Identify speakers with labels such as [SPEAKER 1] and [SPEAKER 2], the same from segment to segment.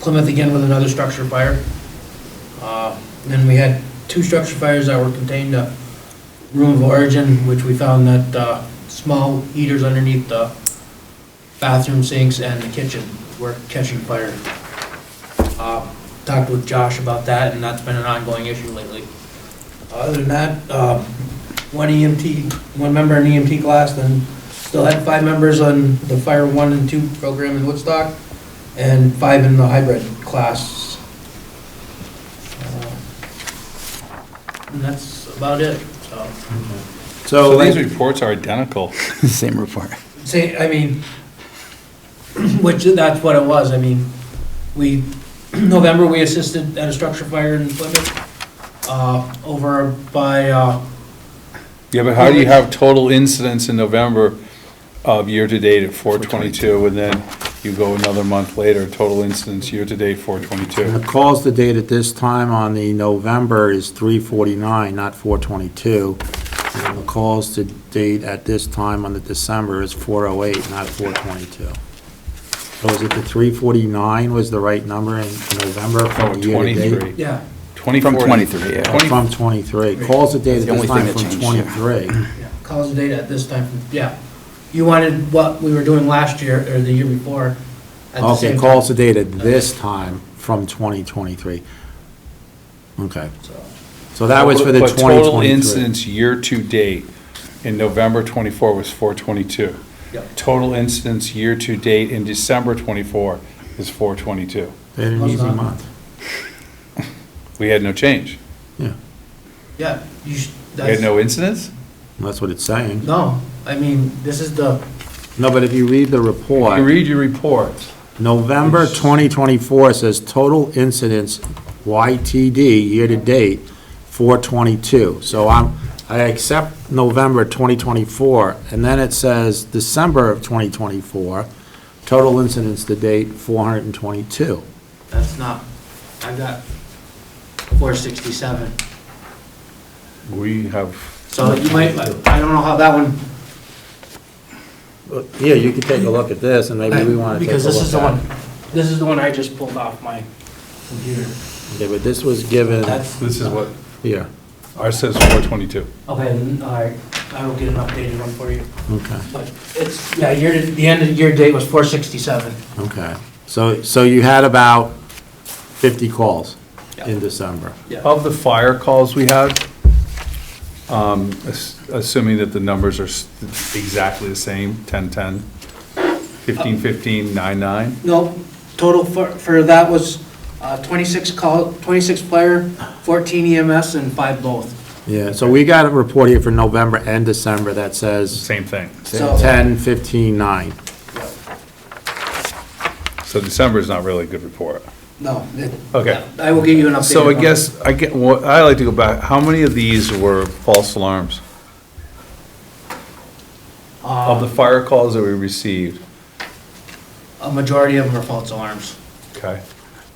[SPEAKER 1] Plymouth again with another structure fire. Uh, Then we had two structure fires that were contained to room of origin, which we found that uh, small heaters underneath the bathroom sinks and the kitchen were catching fire. Uh, Talked with Josh about that, and that's been an ongoing issue lately. Other than that, um, one EMT, one member in EMT class, then still had five members on the Fire 1 and 2 program in Woodstock, and five in the hybrid class. Uh, And that's about it, so.
[SPEAKER 2] So
[SPEAKER 3] these
[SPEAKER 2] like,
[SPEAKER 3] reports are identical.
[SPEAKER 4] Same report.
[SPEAKER 1] Say, I mean, which, that's what it was, I mean, we, November, we assisted at a structure fire in Plymouth, uh, over by, uh,
[SPEAKER 3] Yeah, but how do you have total incidents in November of year-to-date at 422, and then you go another month later, total incidents year-to-date
[SPEAKER 2] the
[SPEAKER 3] 422?
[SPEAKER 2] calls to date at this time on the November is 349, not 422. And the calls to date at this time on the December is 408, not 422. So is it the 349 was the right number in November
[SPEAKER 3] Oh,
[SPEAKER 2] from year to date?
[SPEAKER 3] 23.
[SPEAKER 1] yeah,
[SPEAKER 3] 24.
[SPEAKER 4] From 23, yeah.
[SPEAKER 3] Twenty-
[SPEAKER 2] From 23. Calls to date at
[SPEAKER 4] That's
[SPEAKER 2] this
[SPEAKER 4] the only
[SPEAKER 2] time
[SPEAKER 4] thing that
[SPEAKER 2] from
[SPEAKER 4] changed,
[SPEAKER 2] 23.
[SPEAKER 1] yeah, calls of data at this time, yeah. You wanted what we were doing last year, or the year before, at the
[SPEAKER 2] Okay,
[SPEAKER 1] same
[SPEAKER 2] calls
[SPEAKER 1] time,
[SPEAKER 2] to date at this time from 2023. Okay,
[SPEAKER 1] so.
[SPEAKER 2] so that was for the
[SPEAKER 3] But total
[SPEAKER 2] 2023.
[SPEAKER 3] incidents year-to-date in November 24 was 422.
[SPEAKER 1] Yep.
[SPEAKER 3] Total incidents year-to-date in December 24 is 422.
[SPEAKER 2] They had an
[SPEAKER 1] How's
[SPEAKER 2] easy
[SPEAKER 1] that?
[SPEAKER 2] month.
[SPEAKER 3] We had no change.
[SPEAKER 2] Yeah,
[SPEAKER 1] Yeah, you, sh-
[SPEAKER 3] We had
[SPEAKER 1] that's,
[SPEAKER 3] no incidents?
[SPEAKER 2] that's what it's saying.
[SPEAKER 1] no, I mean, this is the,
[SPEAKER 2] No, but if you read the
[SPEAKER 3] You
[SPEAKER 2] report,
[SPEAKER 3] read your reports.
[SPEAKER 2] November 2024 says total incidents YTD year-to-date 422. So I'm, I accept November 2024, and then it says December of 2024, total incidents to date 422.
[SPEAKER 1] that's not, I've got four sixty-seven.
[SPEAKER 3] We have,
[SPEAKER 1] So you might, I don't know how that one,
[SPEAKER 2] Yeah, you could take a look at this, and maybe we want to take a
[SPEAKER 1] because
[SPEAKER 2] look at
[SPEAKER 1] this is the
[SPEAKER 2] it.
[SPEAKER 1] one, this is the one I just pulled off my computer.
[SPEAKER 2] Okay, but this was given,
[SPEAKER 1] That's,
[SPEAKER 3] this is what,
[SPEAKER 2] here,
[SPEAKER 3] ours says 422.
[SPEAKER 1] okay, then, all right, I will get an updated one for you.
[SPEAKER 2] okay,
[SPEAKER 1] But it's, yeah, year, the end of the year date was four sixty-seven.
[SPEAKER 2] okay. So, so you had about 50 calls
[SPEAKER 1] Yeah.
[SPEAKER 2] in December.
[SPEAKER 3] Of the fire calls we had, um, ass- assuming that the numbers are s- exactly the same, 1010, 1515, 99,
[SPEAKER 1] No, total for, for that was uh, twenty-six call, twenty-six fire, fourteen EMS, and five both.
[SPEAKER 2] Yeah, so we got a report here for November and December that says
[SPEAKER 3] same thing.
[SPEAKER 1] So-
[SPEAKER 2] 10, 15, 9.
[SPEAKER 3] So December's not really a good report.
[SPEAKER 1] No. it-
[SPEAKER 3] Okay.
[SPEAKER 1] I will get you an updated.
[SPEAKER 3] So I
[SPEAKER 1] one.
[SPEAKER 3] guess, I get, what- I like to go back, how many of these were false alarms? Of the
[SPEAKER 1] Uh,
[SPEAKER 3] fire calls that we received?
[SPEAKER 1] A majority of them are false alarms.
[SPEAKER 3] Okay.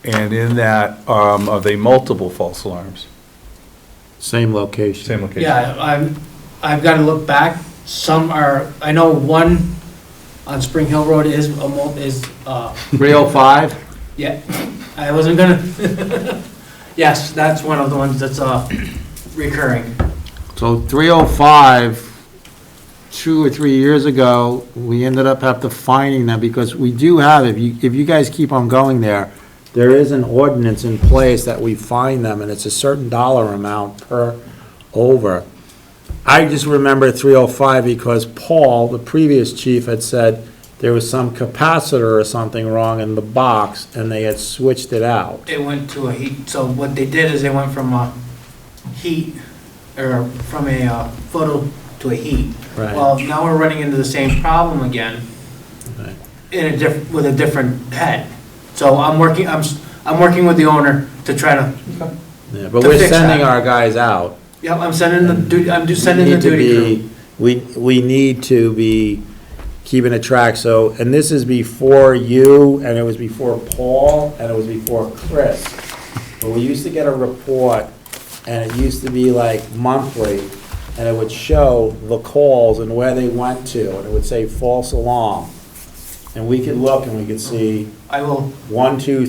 [SPEAKER 3] And in that, um, are they multiple false alarms?
[SPEAKER 2] Same location.
[SPEAKER 3] Same location?
[SPEAKER 1] Yeah, I'm, I've got to look back. Some are, I know one on Spring Hill Road is, a mul- is, uh,
[SPEAKER 2] 305?
[SPEAKER 1] yeah, I wasn't gonna. Yes, that's one of the ones that's uh, recurring.
[SPEAKER 2] So 305, two or three years ago, we ended up have to finding them because we do have, if you, if you guys keep on going there, there is an ordinance in place that we fine them and it's a certain dollar amount per over. I just remember 305 because Paul, the previous chief, had said there was some capacitor or something wrong in the box and they had switched it out.
[SPEAKER 1] It went to a heat, so what they did is they went from a heat, or from a uh, photo to a heat.
[SPEAKER 2] Right.
[SPEAKER 1] Well, now we're running into the same problem again.
[SPEAKER 2] Right.
[SPEAKER 1] in a diff, with a different head. So I'm working, I'm, s- I'm working with the owner to try to,
[SPEAKER 2] Yeah, But
[SPEAKER 1] To
[SPEAKER 2] we're
[SPEAKER 1] fix that.
[SPEAKER 2] sending our guys out.
[SPEAKER 1] yeah, I'm sending the duty, I'm just sending the
[SPEAKER 2] Mm. need to
[SPEAKER 1] duty
[SPEAKER 2] be-
[SPEAKER 1] crew.
[SPEAKER 2] We, we need to be keeping a track, so, and this is before you, and it was before Paul, and it was before Chris. But we used to get a report, and it used to be like monthly, and it would show the calls and where they went to, and it would say false alarm. And we could look and we could see
[SPEAKER 1] I will
[SPEAKER 2] one, two,